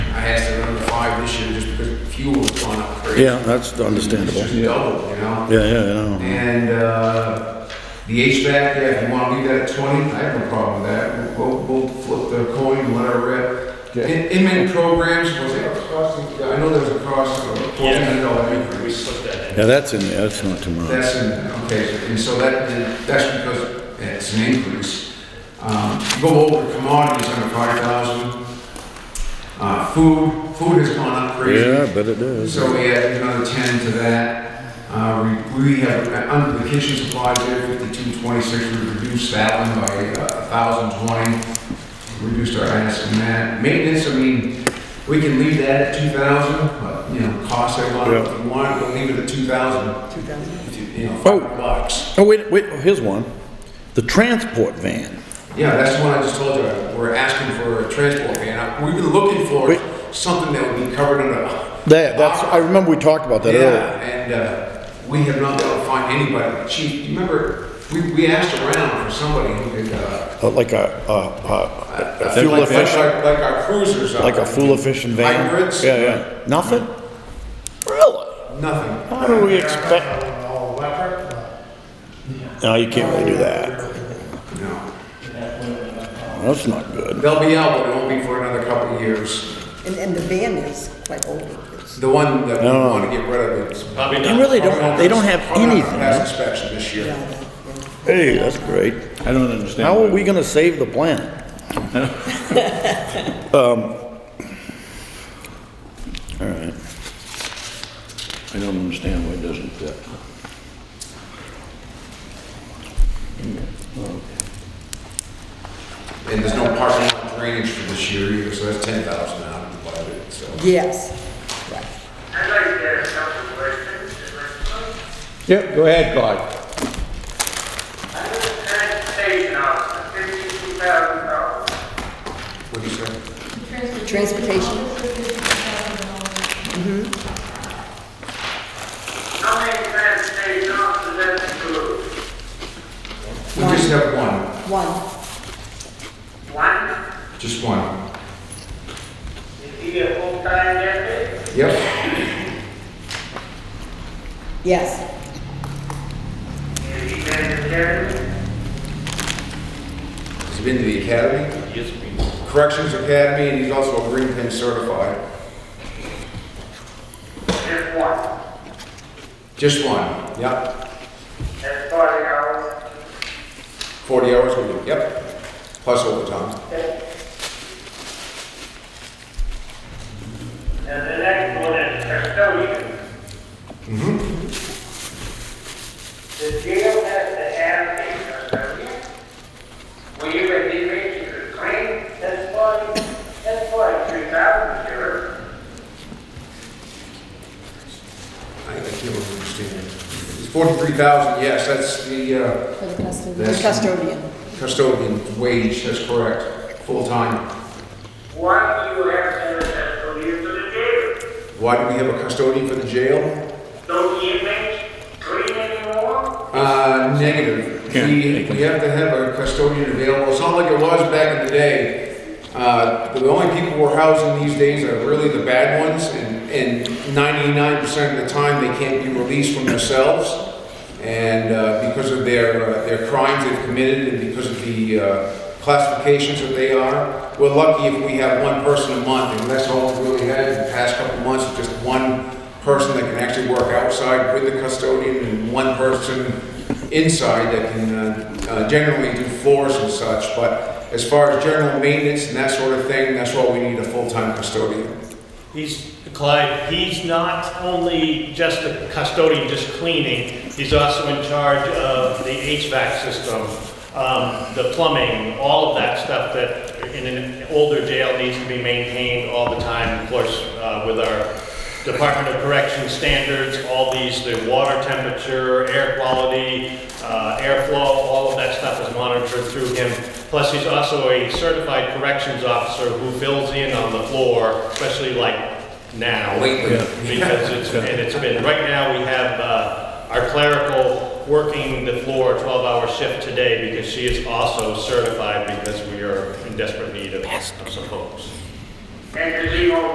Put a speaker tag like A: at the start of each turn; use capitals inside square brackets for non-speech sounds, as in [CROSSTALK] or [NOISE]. A: fuel's gone up crazy.
B: Yeah, that's understandable.
A: It's just doubled, you know?
B: Yeah, yeah, I know.
A: And uh, the HVAC, yeah, if you want to leave that at 20, I have no problem with that. We'll, we'll flip the coin, whatever.
C: Yeah.
A: In- Inman programs, was there a cost? I know there was a cost of a $1,400
D: Yeah, we, we
A: increase.
D: slipped that in.
B: Yeah, that's in there, that's not too much.
A: That's in, there, okay, and so that, that's because it's an increase. Um, Go over commodities under 5,000. Uh, Food, food has gone up crazy.
B: Yeah, I bet it is.
A: So we added another ten to that. Uh, we, we have, uh, under the kitchen supplies there, fifty-two twenty-six, we reduced that one by uh, a thousand twenty. Reduced our ask in that. Maintenance, I mean, we can leave that at two thousand, but, you know, cost a lot, if you want, we'll leave it at two thousand. Two thousand? You know,
B: Oh.
A: five bucks.
B: Oh, wait, wait, here's one. The transport van.
A: Yeah, that's the one I just told you, we're asking for a transport van. Uh, We've been looking for
B: Wait.
A: something that would be covered under.
B: That, that's, I remember we talked about that earlier.
A: Yeah, and uh, we have not been able to find anybody. Chief, you remember, we, we asked around for somebody who could, uh,
B: Uh, Like a, a- a, a
A: uh,
B: fuel
A: like
B: efficient,
A: our- like our cruisers are.
B: like a fuel efficient van.
A: Hybrids.
B: Yeah, yeah. Nothing? Really?
A: Nothing.
B: How do we expect? No, you can't really do that.
A: No.
B: That's not good.
A: They'll be out, but it won't be for another couple of years.
E: And, and the van is quite old. It's-
A: The one that we
B: No.
A: want to get rid of is.
D: Probably
B: They
D: not.
B: really don't, they don't have
A: probably not gonna Pass
B: anything.
A: inspection this year.
E: uh,
B: Hey, that's great.
F: I don't understand.
B: How are
F: why-
B: we gonna save the
F: [LAUGHS]
B: planet? Um, all right.
F: I don't understand why it doesn't fit.
A: And there's no parking lot drainage for this year either, so that's ten thousand out of the budget, so.
E: Yes, right.
G: I'd like to ask a couple of questions, if I could.
C: Yep, go ahead, Clyde.
G: I was a transportation officer, fifty-two thousand dollars.
A: What do you say?
E: Transportation.
G: How many transportation officers at the group?
A: We just have one,
E: One,
G: One?
A: just one.
G: Is he a full-time deputy?
A: Yep.
E: yes,
G: Is he been to Germany?
A: He's been to the academy,
D: Yes, we-
A: corrections academy, and he's also a green pin certified.
G: Just one.
A: Just one, yep.
G: That's forty hours.
A: Forty hours a week, yep. Plus overtime.
G: And the next one is custodian. The jail has to have a custodian. Will you at least make your claim? That's forty, that's forty-three thousand, sure.
A: I I can't really understand. It's forty-three thousand, yes, that's the, uh,
H: For the custodian.
E: the
A: That's-
E: custodian.
A: custodian wage, that's correct, full-time.
G: Why do you have to have a custodian for the jail?
A: Why do we have a custodian for the jail?
G: Don't you make clean anymore?
A: Uh, negative.
F: Yeah,
A: We,
F: they can-
A: we have to have a custodian available. It's not like it was back in the day. Uh, the only people we're housing these days are really the bad ones, and, and ninety-nine percent of the time, they can't be released from their cells. And, uh, because of their, uh, their crimes they've committed and because of the, uh, classifications that they are. We're lucky if we have one person a month, and that's all we really had in the past couple of months, just one person that can actually work outside with the custodian and one person inside that can uh, uh, generally do floors and such, but as far as general maintenance and that sort of thing, that's why we need a full-time custodian.
D: He's, Clyde, he's not only just a custodian, just cleaning, he's also in charge of the HVAC system, um, the plumbing, all of that stuff that in an older jail needs to be maintained all the time, of course, uh, with our Department of Corrections standards, all these, the water temperature, air quality, uh, airflow, all of that stuff is monitored through him. Plus, he's also a certified corrections officer who fills in on the floor, especially like now.
A: Lately. Yeah.
D: Because it's, and it's been, right now, we have uh, our clerical working the floor 12-hour shift today because she is also certified because we are in desperate need of of some folks.
G: And does he own